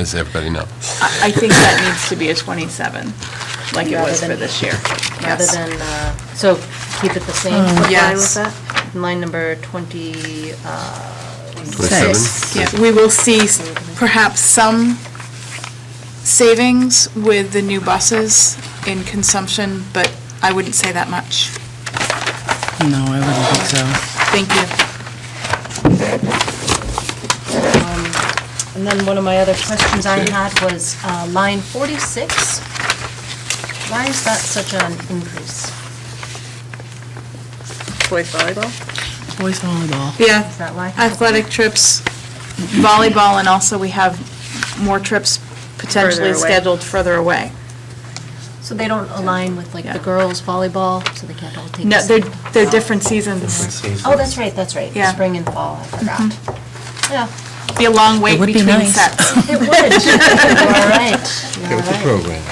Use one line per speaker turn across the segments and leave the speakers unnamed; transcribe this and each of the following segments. as everybody knows.
I I think that needs to be a 27, like it
Rather
was for
than-
this year.
rather
Yes.
than, uh, so keep it the same,
Mm,
what line
Yes.
was that? Line number 20, uh,
Twenty-seven?
six.
Yeah.
We will see s- perhaps some savings with the new buses in consumption, but I wouldn't say that much.
No, I wouldn't think so.
Thank you.
And then one of my other questions I had was uh, line 46. Why is that such an increase?
Boys volleyball?
Boys volleyball.
Yeah,
Is that why?
athletic trips, volleyball, and also we have more trips potentially
Further away.
scheduled further away.
So they don't align with like
Yeah.
the girls volleyball, so they can't all take the
No, they're,
same?
they're different seasons.
Oh, that's right, that's right.
Yeah. Mm-hmm.
Spring and fall, I forgot. Yeah,
Be a long wait
would be
between
nice.
sets.
it would. All right, Ah,
It was a program.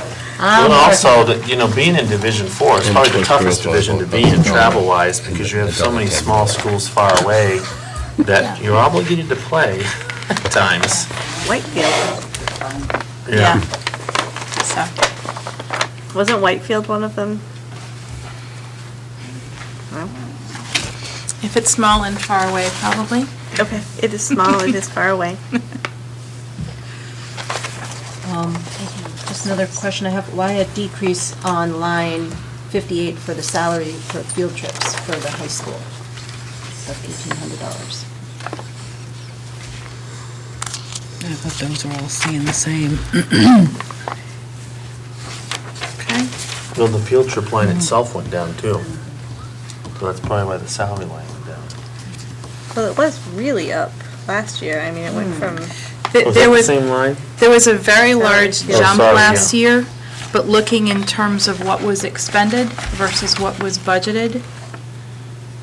Well, and also, that, you know, being in Division Four is
And
probably the
push
toughest
girls
division to
volleyball.
be in travel-wise, because you have so many small schools far away that you're obligated to play at times.
Whitefield.
Yeah.
So,
Wasn't Whitefield one of them?
if it's small and far away, probably.
Okay, it is small, it is far away.
Um, Just another question I have, why a decrease on line 58 for the salary for field trips for the high school of $1,800?
I thought those were all staying the same.
Okay.
Well, the field trip line itself went down too. So that's probably why the salary line went down.
Well, it was really up last year. I mean, it went
Hmm.
from
Th-
Was that
There
the
was,
same line?
there was a very large
yeah.
jump
Oh, Sorry,
last
yeah.
year, but looking in terms of what was expended versus what was budgeted,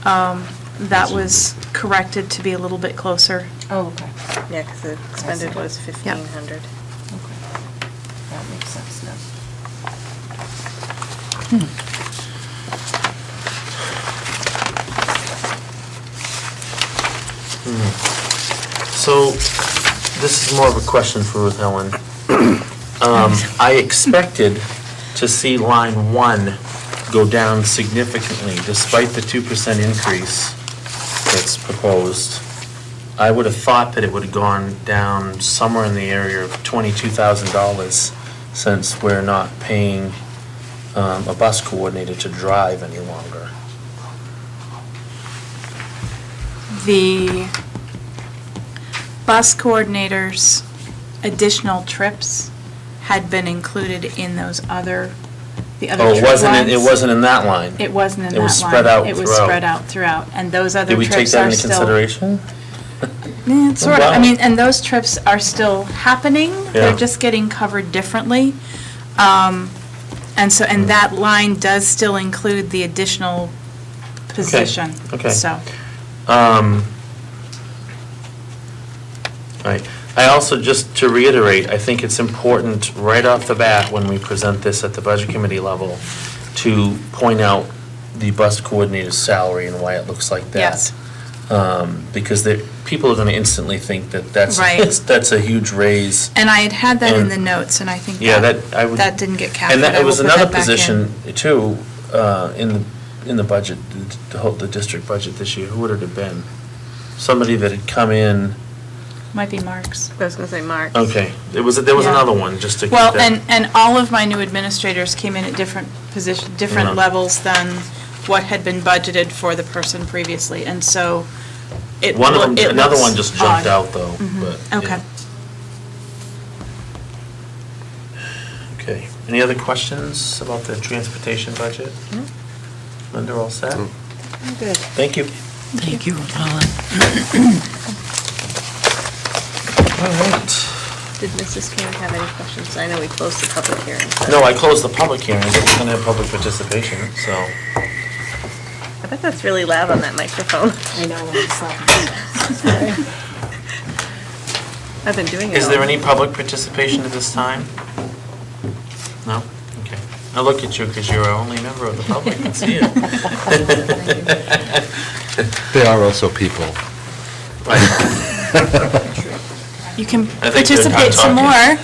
um, that was corrected to be a little bit closer.
Oh, okay,
yeah, because the expended was fifteen hundred.
okay. That makes sense now.
So, this is more of a question for Ruth Ellen. Um, I expected to see line one go down significantly despite the two percent increase that's proposed. I would have thought that it would have gone down somewhere in the area of twenty-two thousand dollars since we're not paying, um, a bus coordinator to drive any longer.
The bus coordinator's additional trips had been included in those other, the other
Oh, it
trip
wasn't, in- it
lines.
wasn't in that line?
It wasn't in that line.
It was spread out
It was
throughout.
spread out throughout, and those other
Did we
trips are still.
take that into consideration?
Yeah, it's sort of, I
Wow.
mean, and those trips are still happening, they're
Yeah.
just getting covered differently. Um, And so, and
Mm.
that line does still include the additional position,
okay.
so.
Um, Right. I also, just to reiterate, I think it's important right off the bat when we present this at the Budget Committee level to point out the bus coordinator's salary and why it looks like that.
Yes.
Um, Because there, people are going to instantly think that that's,
Right.
that's a huge raise.
And I had had that in
And-
the notes, and I think
Yeah,
that,
that- I would-
that didn't get captured.
And that,
I
it
will
was
put
another
that back in.
position too, uh, in the, in the budget, the- the whole, the district budget this year, who would it have been? Somebody that had come in,
Might be Mark's.
I was gonna say Mark.
okay, there was, there was
Yeah.
another one, just to keep
Well,
that-
and, and all of my new administrators came in at different position, different
Mhm.
levels than what had been budgeted for the person previously, and so it.
One of
loo-
them,
it
another
looks
one just jumped
odd. Mm-hmm.
out though, but. yeah.
Okay.
Okay, any other questions about the transportation budget? Linda, all set?
Good.
Thank you.
Thank you, Paula.
All right.
Did Mrs. Karen have any questions? I know we closed the public hearing. but-
No, I closed the public hearing, but we're gonna have public participation, so.
I bet that's really loud on that microphone.
I know, when it's like,
I've been doing it.
Is
all-
there any public participation at this time? No? Okay. I look at you because you're our only member of the public that's here.
They are also people.
Right.
You can
I think they're not
participate some
talking.
more.